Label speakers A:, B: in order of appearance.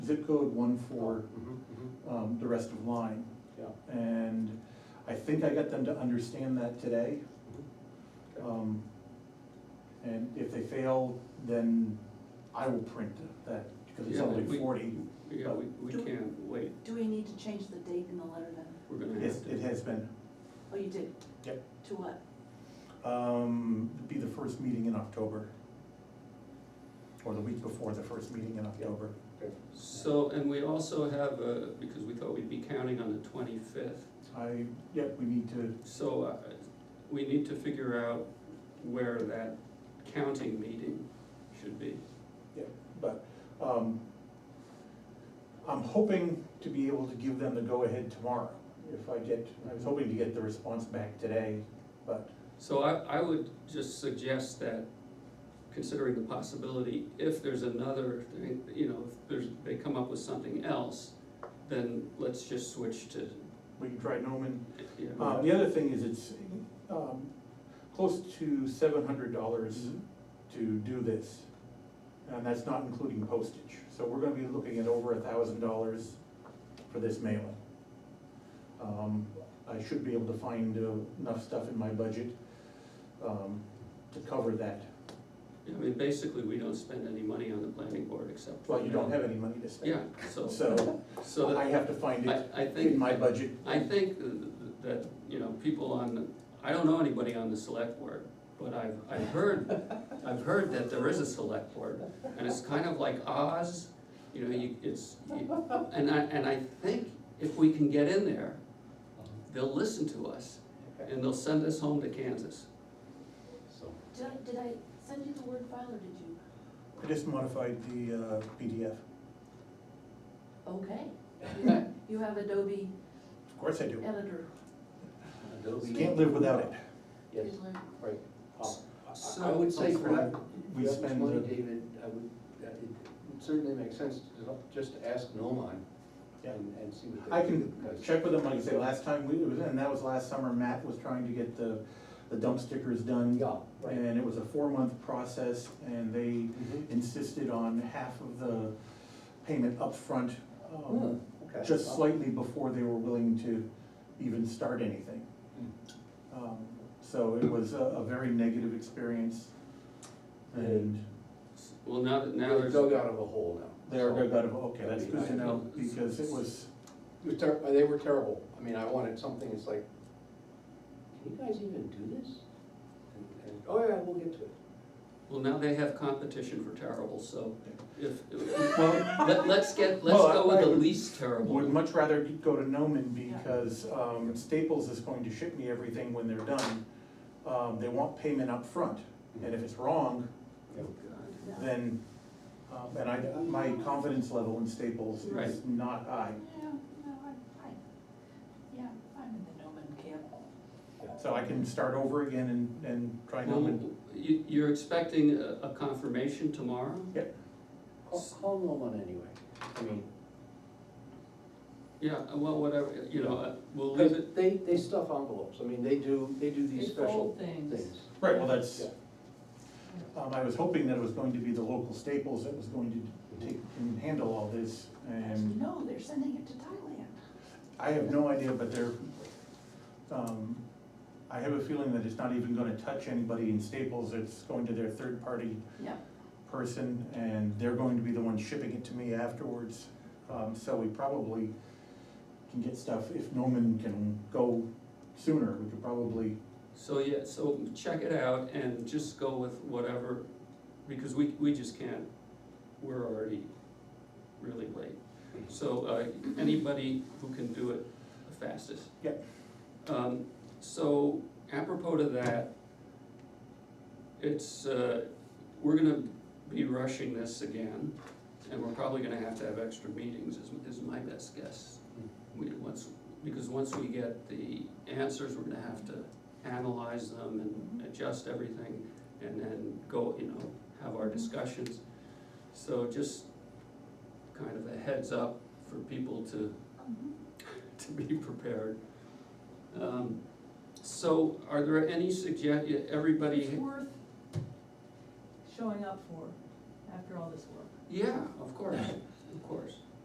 A: zip code, one for,
B: Mhm, mhm.
A: um, the rest of line.
B: Yeah.
A: And I think I got them to understand that today.
B: Okay.
A: Um, And if they fail, then I will print that, because it's
B: Yeah,
A: only
B: we-
A: forty.
B: Yeah, we, we
C: Do-
B: can't wait,
C: Do we need to change the date in the letter then?
B: we're gonna
A: Yes,
B: have to.
A: it has been.
C: Oh, you did?
A: Yep.
C: To what?
A: Um, it'd be the first meeting in October. Or the week before the first meeting in October.
B: So, and we also have, uh, because we thought we'd be counting on the twenty-fifth,
A: I, yep, we need to,
B: so, uh, we need to figure out where that counting meeting should be.
A: but, um, I'm hoping to be able to give them the go-ahead tomorrow. If I get, I was hoping to get the response back today, but
B: So I, I would just suggest that, considering the possibility, if there's another, you know, if there's, they come up with something else, then let's just switch to,
A: we can try Noman
B: you know.
A: Um, the other thing is it's, um, close to seven hundred dollars
D: Mm-hmm.
A: to do this. And that's not including postage, so we're gonna be looking at over a thousand dollars for this mailing. Um, I should be able to find uh, enough stuff in my budget, um, to cover that.
B: I mean, basically, we don't spend any money on the planning board except. for
A: Well, you don't
B: that.
A: have any money to
B: Yeah,
A: spend,
B: so,
A: so
B: so
A: I
B: that,
A: have to find it
B: I, I think.
A: in my budget.
B: I think that, you know, people on, the- I don't know anybody on the select board, but I've, I've heard, I've heard that there is a select board, and it's kind of like Oz, you know, you, it's, you- and I, and I think if we can get in there, they'll listen to us, and they'll send us home to Kansas.
D: So,
C: Did I, did I send you the word file or did you?
A: I just modified the, uh, PDF,
C: Okay. You- You have Adobe
A: of course I do,
C: editor.
D: Adobe.
A: can't live without it.
D: Yes,
C: Please learn.
D: right. Uh, I- I
B: So-
D: would say for that,
A: We
D: we spend
A: spend
D: money,
A: the-
D: David, I would, uh, it would certainly makes sense to not- just to ask Nomon
A: Yeah.
D: and, and see what they.
A: I can
D: do, because-
A: check with them, like I say, last time we, it was, and that was last summer, Matt was trying to get the, the dump stickers done.
D: Yeah, right.
A: And it was a four-month process, and they
D: Mhm.
A: insisted on half of the payment upfront,
D: Hmm,
A: um,
D: okay.
A: just slightly before they were willing to even start anything. Um, So it was a, a very negative experience, and
B: Well, now that, now
D: They're
B: there's,
D: dug out of a hole now.
A: they're,
D: So-
A: they're gonna, okay, that's good to know, because it was,
D: It was ter- they were terrible. I mean, I wanted something, it's like, can you guys even do this? And, and, oh yeah, we'll get to it.
B: well, now they have competition for terrible, so if,
A: well,
B: let, let's get, let's
A: Well,
B: go with
A: I
B: the
A: would-
B: least terrible.
A: Would much rather go to Noman
C: Yeah.
A: because um, Staples is going to ship me everything when they're done. Um, They want payment up front, and if it's wrong,
B: Oh, God.
A: then, um, and I, my confidence level in Staples is
B: Right.
A: not high.
C: Yeah, no, I, I, yeah, I'm in the Noman camp.
A: So I can start over again and, and try
B: Well,
A: Noman.
B: you, you're expecting a, a confirmation tomorrow?
D: Call, call Nomon anyway. I mean,
B: Yeah, uh, well, whatever, you know, uh, we'll leave
D: Because
B: it,
D: they, they stuff envelopes, I mean, they do, they do these
E: They fold
D: special
E: things.
D: things.
A: Right, well, that's,
D: Yeah.
A: um, I was hoping that it was going to be the local Staples that was going to take and handle all this. And
C: No, they're sending it to Thailand.
A: I have no idea, but they're, um, I have a feeling that it's not even gonna touch anybody in Staples, it's going to their third-party
C: Yeah.
A: person, and they're going to be the ones shipping it to me afterwards. Um, so we probably can get stuff, if Norman can go sooner, we could probably,
B: so, yeah, so check it out and just go with whatever, because we, we just can't, we're already really late. So, uh, anybody who can do it the fastest.
A: Yep.
B: Um, so apropos to that, it's, uh, we're gonna be rushing this again, and we're probably gonna have to have extra meetings, is, is my best guess. We, once, because once we get the answers, we're gonna have to analyze them and adjust everything, and then go, you know, have our discussions. So just kind of a heads up for people to,
C: Mm-hmm.
B: to be prepared. Um, So are there any suggestions?
E: It's
B: everybody,
E: worth showing up for after all this work.
B: yeah, of course, of course.